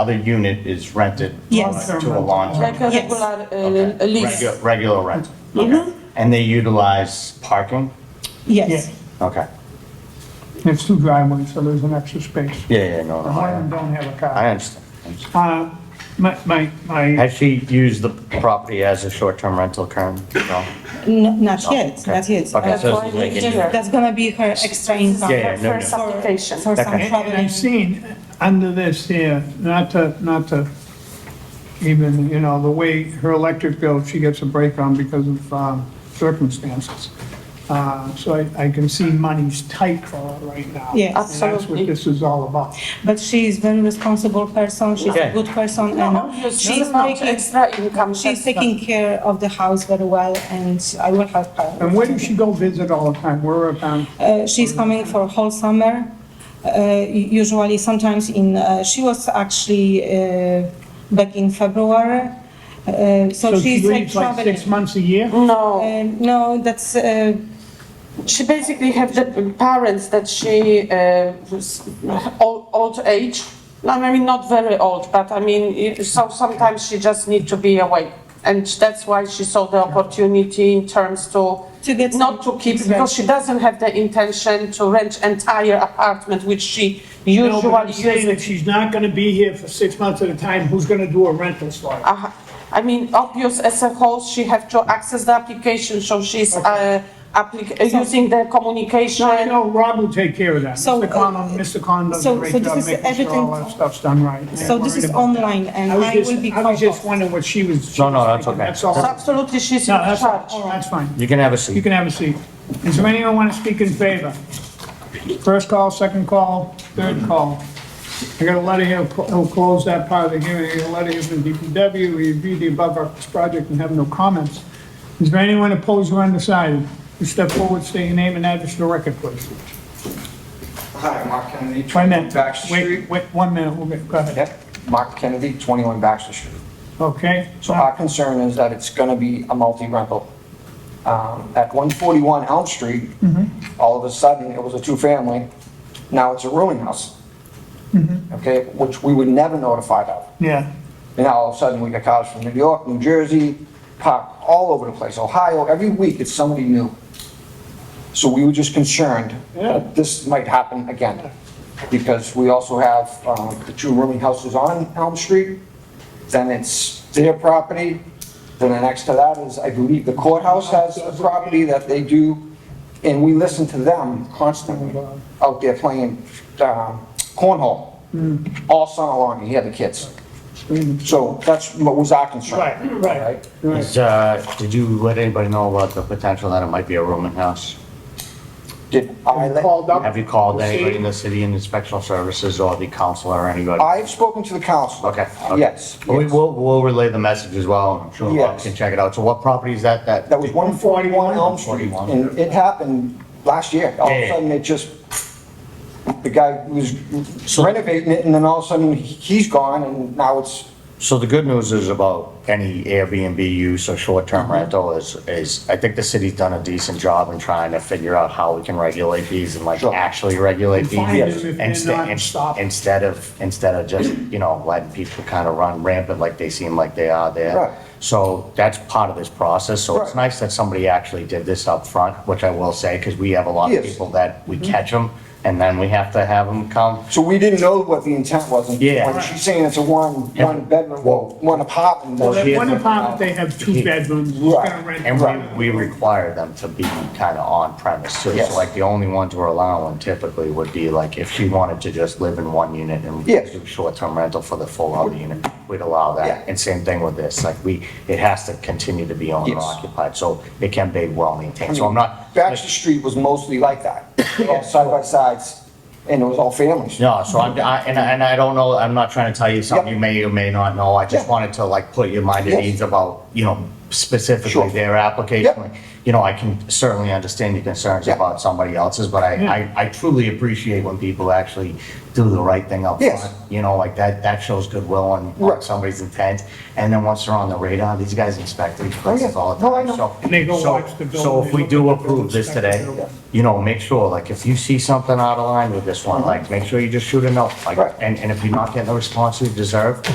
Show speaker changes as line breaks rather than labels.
other unit is rented
Yes.
to a long-term.
Like a
Yes.
regular,
Okay.
uh, lease.
Regu- Regular rental.
Mm-hmm.
Okay. And they utilize parking?
Uh-huh. Yes,
Okay.
It's two driveways, so there's an extra space.
Yeah, yeah, no, no.
One of them
I-
don't have a
I
car.
understand. I understand.
Uh, my, my, my,
Has she used the property as a short-term rental currently? No?
no, not yet, not
Okay,
yet. Uh,
so
That's
it's
why
like
it's
a-
different.
That's gonna be her extra income.
Yeah, yeah, no,
for-
no.
for-
Application.
For some
Okay.
and and I've
traveling.
seen under this here, not to, not to even, you know, the way her electric bill, she gets a break on because of um, circumstances. Uh, so I, I can see money's tight for her right now.
Yes.
And that's
Absolutely.
what this is all about.
But she is very responsible person, she's a
Yeah.
good person
No,
and
obviously,
she's
not
taking,
extra income.
she's
that's not-
taking care of the house very well and I will help her.
And where does she go visit all the time? Where about?
Uh, she's coming for whole summer. Uh, usually, sometimes in uh, she was actually uh, back in February. Uh, so, she's
she
like
leaves like
traveling.
six months a year?
No,
Uh, no, that's uh,
she basically have the parents that she, uh, was old, old age. I mean, not very old, but I mean, it- so sometimes she just need to be away. And that's why she saw the opportunity in terms to
To get
not to
some-
keep, because she doesn't have the intention to rent entire apartment, which she
No, but
usually
I'm saying if
uses.
she's not gonna be here for six months at a time, who's gonna do a rental for her?
Uh, I mean, obvious as a whole, she have to access the application, so she's, uh, applic, uh, using the communication.
I know Rob will take care of that.
So,
Mr. Khan,
uh,
Mr. Khan does a
so-
great
so this
job
is
making sure all
everything-
that stuff's done right. I'm
so this
worried
is
about that.
online, and
I
I,
was just,
will be.
I was just
called.
wondering what she was. she
No, no,
was
that's
thinking.
okay.
That's all.
So Absolutely, she's in
No, that's,
charge.
that's fine.
You can have a
You
seat.
can have a seat. Is there anyone want to speak in favor? First call, second call, third call. I got a letter here, he'll close that part of the hearing, I got a letter here from DPW, we reviewed the above referenced project and have no comments. Is there anyone opposed or undecided? You step forward, state your name and address for the record, please.
Hi, Mark Kennedy.
Wait a
21
minute.
Baxter Street.
Wait, wait, one minute, we'll get, go ahead.
Yep, Mark Kennedy, 21 Baxter Street.
Okay?
So our concern is that it's going to be a multi-rental. Um, At 141 Elm Street,
Mm-hmm.
all of a sudden, it was a two-family, now it's a rooming house.
Mm-hmm.
Okay, which we were never notified of.
Yeah,
And now all of a sudden, we got cars from New York, New Jersey, parked all over the place, Ohio, every week it's somebody new. So we were just concerned
Yeah.
that this might happen again. Because we also have um, the two rooming houses on Elm Street, then it's their property, then the next to that is, I believe, the courthouse has a property that they do, and we listen to them constantly out there playing um, cornhole all summer long, and hear the kids. So that's what was our concern.
right, right.
Right?
Is, uh, did you let anybody know about the potential that it might be a rooming house?
Did I let?
Called up.
Have you called anybody in
Proceed.
the city and inspection services or the council or anybody?
I've spoken to the council.
Okay. okay.
Yes.
But We
yes.
will, we'll relay the message as well. I'm sure Bob
Yes.
can check it out. So what property is that?
That was 141 Elm Street,
141.
and it happened last year. All of
Yeah,
a
yeah.
sudden, it just, the guy was renovating it, and then all of a sudden, he- he's gone, and now it's,
So the good news is about any Airbnb use or short-term
Mm-hmm.
rental is, is, I think the city's done a decent job in trying to figure out how we can regulate these and like
Sure.
actually regulate these.
find them if they're
instead-
not
in-
stopped.
Instead of, instead of just, you know, letting people kind of run rampant like they seem like they are
Right.
there. So that's part of this process. So it's
Right.
nice that somebody actually did this up front, which I will say, because we have a lot of
Yes. Mm-hmm.
people that we catch them and then we have to have them come.
so we didn't know what the intent was. and
Yeah.
when She's saying it's a one,
Yeah.
one bedroom,
Well-
one apartment.
Well,
That
she
one apartment, they have two bedrooms, who's
Right.
gonna rent?
And
the
we, we require them to be kind of on premise too. So
Yes.
like the only ones we're allowing typically would be like if she wanted to just live in one unit and
Yes.
do short-term rental for the full other unit, we'd allow
Yeah.
that. And same thing with this, like we, it has to continue to be owner
Yes.
occupied, so it can be well maintained. So I'm not.
Baxter Street was mostly like that, all side by sides, and it was all families.
No, so I'm, I, and I, and I don't know, I'm not trying to tell you something
Yeah.
you may or may not know. I just
Yeah.
wanted to like put your mind at
Yes.
ease about, you know, specifically
Sure.
their
Yeah.
application. you know, I can certainly understand your concerns
Yeah.
about somebody else's, but I, I, I truly appreciate when people actually do the right thing up
Yes.
front. You know, like that, that shows goodwill and
Right.
somebody's intent. And then once they're on the radar, these guys inspect these
Oh, yeah.
places all the
No, I
time.
know.
So-
And they go
so-
watch the building,
So if
they
we
look at
do
the
approve
building,
this
inspect the
today,
building.
you know, make sure, like, if you see something out of line with this one, like, make sure you just shoot a note. Like,
Right.
and, and if you're not getting the response you deserve,